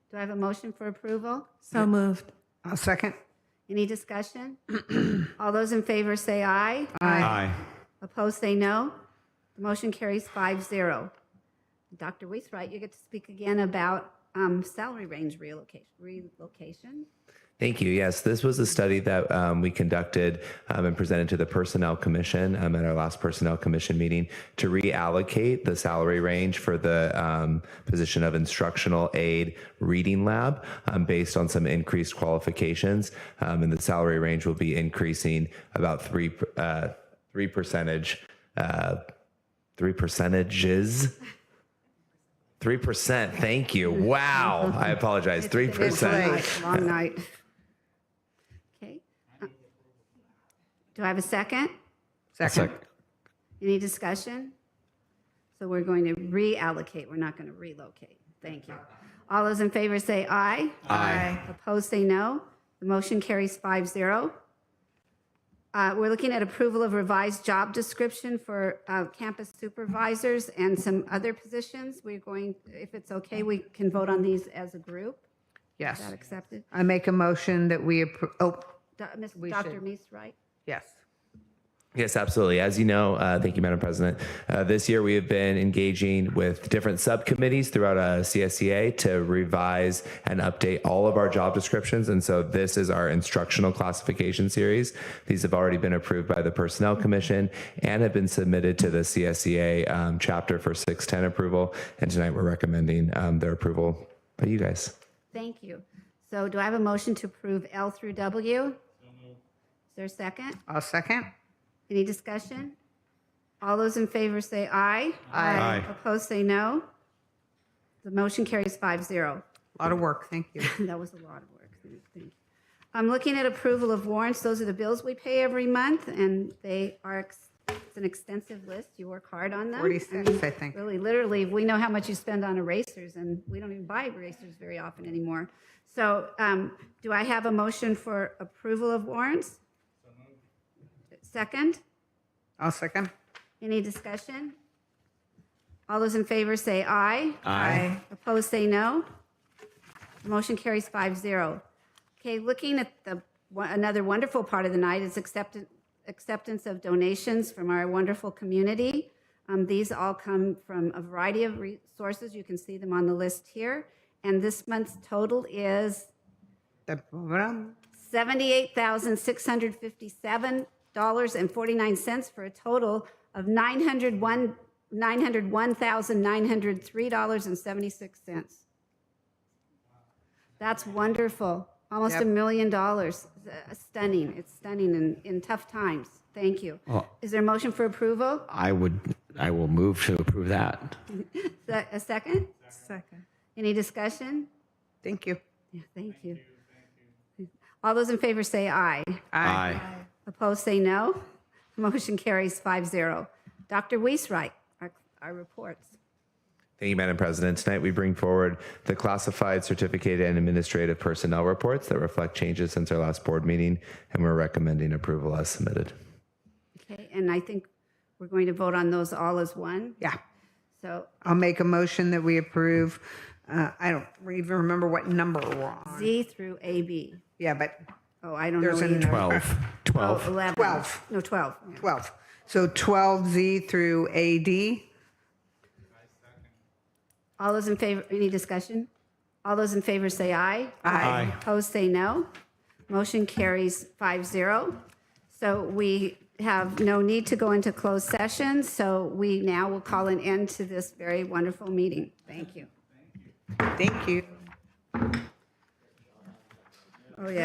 Do I have a motion for approval? So moved. I'll second. Any discussion? All those in favor say aye. Aye. Opposed say no. The motion carries 5-0. Dr. Wainwright, you get to speak again about um, salary range relocation. relocation. Thank you. Yes, this was a study that um, we conducted um, and presented to the Personnel Commission um, at our last Personnel Commission meeting to reallocate the salary range for the um, position of instructional aid reading lab um, based on some increased qualifications. Um, and the salary range will be increasing about three uh, three percentage uh, three percentages. Three percent. Thank you. Wow. I apologize. Three percent. Night, Long night. Okay. Do I have a second? Second. Any discussion? So we're going to reallocate, we're not going to relocate. Thank you. All those in favor say aye. Aye. Opposed say no. The motion carries 5-0. Uh, We're looking at approval of revised job description for uh, campus supervisors and some other positions. We're going, if it's okay, we can vote on these as a group. Is Yes. that accepted? I make a motion that we approve, oh, Do- Ms. We Dr. should. Meese, right? yes. Yes, absolutely. As you know, uh, thank you, Madam President. Uh, this year, we have been engaging with different subcommittees throughout uh, CSEA to revise and update all of our job descriptions. And so, this is our instructional classification series. These have already been approved by the Personnel Commission and have been submitted to the CSEA um, chapter for 610 approval. And tonight, we're recommending um, their approval by you guys. Thank you. So do I have a motion to approve L through W? Is there a second? I'll second. Any discussion? All those in favor say aye. Aye. Opposed say no. The motion carries 5-0. A Lot of work, thank you. That was a lot of work. Thank you. I'm looking at approval of warrants. Those are the bills we pay every month, and they are, ex- it's an extensive list. You work hard on them. I mean, 46, I think. Really, literally, we know how much you spend on erasers, and we don't even buy erasers very often anymore. So um, do I have a motion for approval of warrants? Second? I'll second. Any discussion? All those in favor say aye. Aye. Opposed, say no. Motion carries 5-0. Okay, looking at the, another wonderful part of the night is acceptance, acceptance of donations from our wonderful community. Um, These all come from a variety of resources. You can see them on the list here. And this month's total is $78,657.49 for a total of $901 $901,903.76. That's wonderful. Almost a Yep. million dollars. Uh, Stunning. It's stunning in, in tough times. Thank you. Is there a motion for approval? I would, I will move to approve that. Se- A second? Second. Any discussion? Thank you. Yeah, thank you. All those in favor say aye. Aye. Opposed, say no. Motion carries 5-0. Dr. Weisreich, our, our reports. Thank you, Madam President. Tonight, we bring forward the classified certificated and administrative personnel reports that reflect changes since our last board meeting, and we're recommending approval as submitted. Okay, and I think we're going to vote on those all as one. Yeah. So I'll make a motion that we approve, uh, I don't even remember what number we're on. Z through AB. Yeah, but Oh, I don't know there's a either. 12. Oh, 12. 11. 12. No, 12. yeah. 12. So 12Z through AD. All those in favor, any discussion? All those in favor say aye. Aye. Opposed, say no. Motion carries 5-0. So we have no need to go into closed session, so we now will call an end to this very wonderful meeting. Thank you. Thank you. Oh, yeah.